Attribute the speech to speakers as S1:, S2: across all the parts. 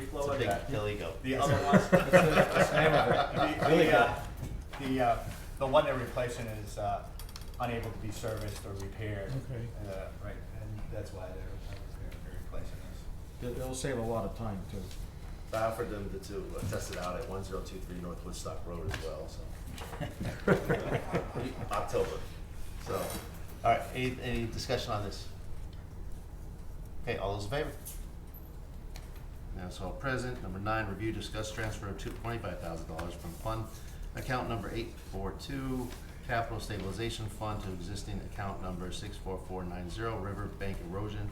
S1: It's a
S2: lower
S1: big
S2: that.
S1: hill ego.
S2: The other one,
S3: Just name of it.
S2: the,
S3: Really
S2: the, uh,
S3: good.
S2: the, uh, the one they're replacing is, uh, unable to be serviced or repaired.
S3: Okay.
S2: And, uh, right, and that's why they're, they're replacing this.
S3: They'll- They'll save a lot of time too.
S4: I offered them to- to uh, test it out at one zero two three North Woodstock Road as well, so. October, so.
S1: All right, any, any discussion on this? Okay, all those in favor? Now it's all present. Number nine, review, discuss transfer of two, twenty-five thousand dollars from fund account number eight four two, capital stabilization fund to existing account number six four four nine zero, river bank erosion,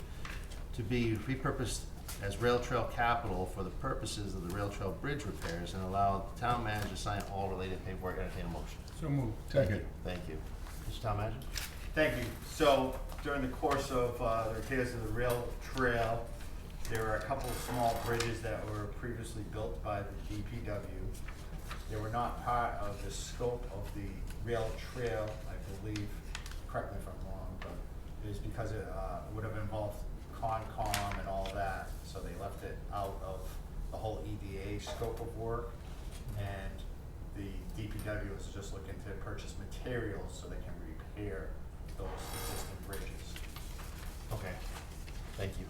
S1: to be repurposed as rail trail capital for the purposes of the rail trail bridge repairs and allow the town manager to sign all related paperwork. Entertain a motion.
S3: So moved.
S4: Second.
S1: Thank you. Mr. Town Manager?
S2: Thank you. So during the course of uh, the repairs of the rail trail, there were a couple of small bridges that were previously built by the DPW. They were not part of the scope of the rail trail, I believe, correct me if I'm wrong, but it is because it uh, would have involved Concom and all that, so they left it out of the whole EDA E scope of work. And the DPW is just looking to purchase materials so they can repair those existing bridges.
S1: Okay, thank you.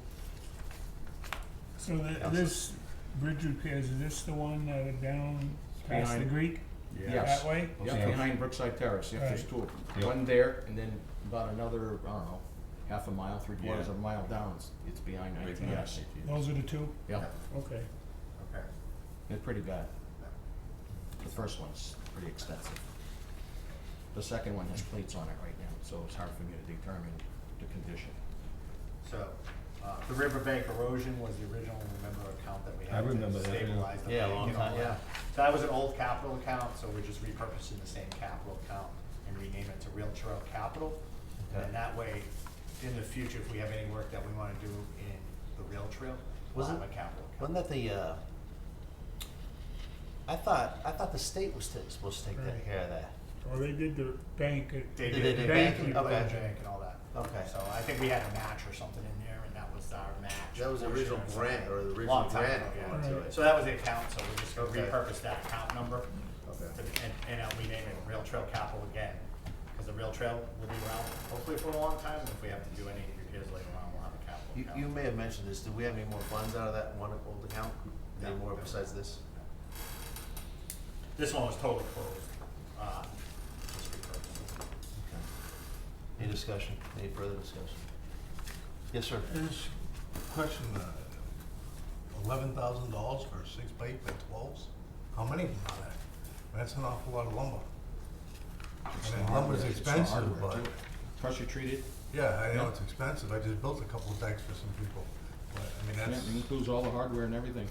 S5: So the,
S1: Council.
S5: this bridge repairs, is this the one that are down past the
S3: Behind-
S5: Greek?
S3: Yes.
S5: That way?
S3: Yeah, behind Brookside Terrace, yep, there's
S5: Right.
S3: two of them. One there, and then about another, I don't know, half a mile, three quarters of a mile down, it's- it's behind
S5: Right there.
S3: ITS.
S5: Those are the two?
S3: Yeah,
S5: Okay.
S2: Okay.
S3: they're pretty bad. The first one's pretty extensive. The second one has plates on it right now, so it's hard for me to determine the condition.
S2: So, uh, the riverbank erosion was the original, remember, account that we
S6: I
S2: had
S6: remember
S2: to
S6: that, yeah.
S2: stabilize the
S1: Yeah, a
S2: bank
S1: long
S2: and all
S1: time,
S2: that.
S1: yeah.
S2: So that was an old capital account, so we're just repurposing the same capital account and rename it to Real Trail Capital. And then
S1: Okay.
S2: that way, in the future, if we have any work that we wanna do in the rail trail, we'll have
S1: Wasn't-
S2: a capital account.
S1: Wasn't that the, uh, I thought, I thought the state was ta- supposed to take that
S5: Right.
S1: care of that.
S5: Well, they did the bank at.
S2: They
S1: They
S2: did
S1: did
S2: the
S1: the
S2: bank,
S1: banking,
S2: and the
S1: okay.
S2: bank and all that.
S1: Okay.
S2: So I think we had a match or something in there, and that was our match.
S4: That was the
S2: portion
S4: original
S2: or something.
S4: grant, or the original
S2: Long time
S4: grant
S2: ago, yeah.
S4: going to
S5: Right.
S4: it.
S2: So that was the account, so we're just gonna
S4: Okay.
S2: repurpose that account number,
S4: Okay.
S2: to- and, and uh, rename it Rail Trail Capital again, because the rail trail will be around hopefully for a long time, and if we have to do any repairs later on, we'll have a
S1: You,
S2: capital
S1: you
S2: account.
S1: may have mentioned this, do we have any more funds out of that one old account? Any
S2: No.
S1: more besides this?
S2: This one was totally closed, uh, just repurposed.
S1: Okay. Any discussion, any further discussion? Yes, sir.
S7: There's question, uh, eleven thousand dollars for six by eight by twelves? How many of them are there? That's an awful lot of lumber.
S3: It's
S7: And
S3: the
S7: then lumber's
S3: hardware- it's the
S7: expensive,
S3: hardware,
S7: but,
S3: too. Pressure treated,
S7: yeah, I know it's expensive, I just built a couple of decks for some people. But, I mean,
S3: yeah,
S7: that's,
S3: it includes all the hardware and everything.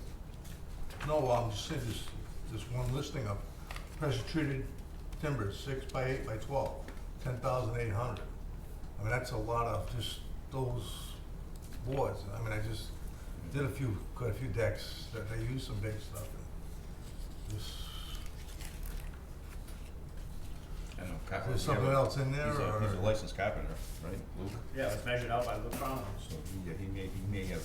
S7: no, well, I'm just saying, this, this one listing of pressure treated timber, six by eight by twelve, ten thousand eight hundred. I mean, that's a lot of just those boards, I mean, I just did a few, quite a few decks that I used some big stuff and just,
S6: I know,
S7: is
S6: carpenter.
S7: there something else in there
S6: Uh, He's a, he's a
S7: or?
S6: licensed carpenter, right, Luke?
S2: Yeah, it was measured out by Luke Collins.
S6: So he, he may, he may have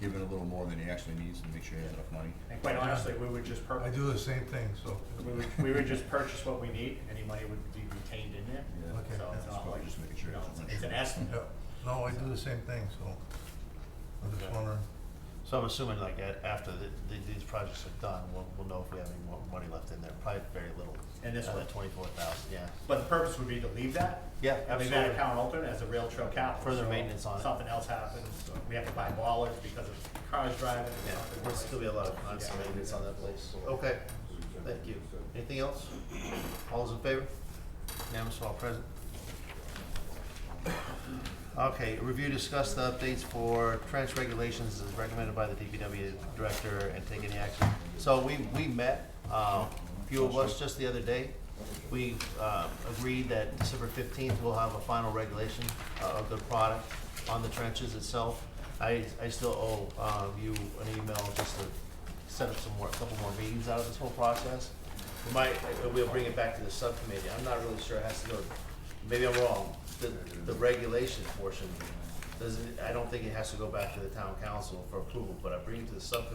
S6: given a little more than he actually needs to make sure he has enough money.
S2: And quite honestly, we would just
S7: I
S2: purpose,
S7: do the same thing, so.
S2: we would, we would just purchase what we need, any money would be retained in there,
S6: Yeah.
S7: Okay.
S2: so it's
S6: It's
S2: not
S6: probably
S2: like,
S6: just making sure
S2: you know,
S6: it's not
S2: it's- it's an
S6: sure.
S2: estimate.
S7: Yeah, no, I do the same thing, so I'm just
S1: Okay.
S7: wondering.
S1: So I'm assuming like a- after the, the- these projects are done, we'll, we'll know if we have any more money left in there, probably very little. Uh,
S2: And this one?
S1: Twenty-four thousand, yeah.
S2: But the purpose would be to leave that.
S1: Yeah,
S2: and Leave that
S1: absolutely.
S2: account open as a rail trail capital.
S1: Further
S2: so
S1: maintenance on it.
S2: Something else happens, so we have to buy ballers because of cars driving. or
S1: Yeah,
S2: something
S1: there'll
S2: like
S1: still be a lot of
S2: Yeah.
S1: constant maintenance on that place. Okay, thank you. Anything else? All those in favor? Unanimous, all present. Okay, review, discuss the updates for trench regulations as recommended by the DPW director and take any action. So we, we met, uh, a few of us just the other day. We, uh, agreed that December fifteenth, we'll have a final regulation uh, of the product on the trenches itself. I, I still owe, uh, you an email just to set up some more, a couple more meetings out of this whole process. We might, uh, we'll bring it back to the subcommittee. I'm not really sure it has to go, maybe I'm wrong. The, the regulation portion, doesn't, I don't think it has to go back to the town council for approval, but I bring it to the subcommittee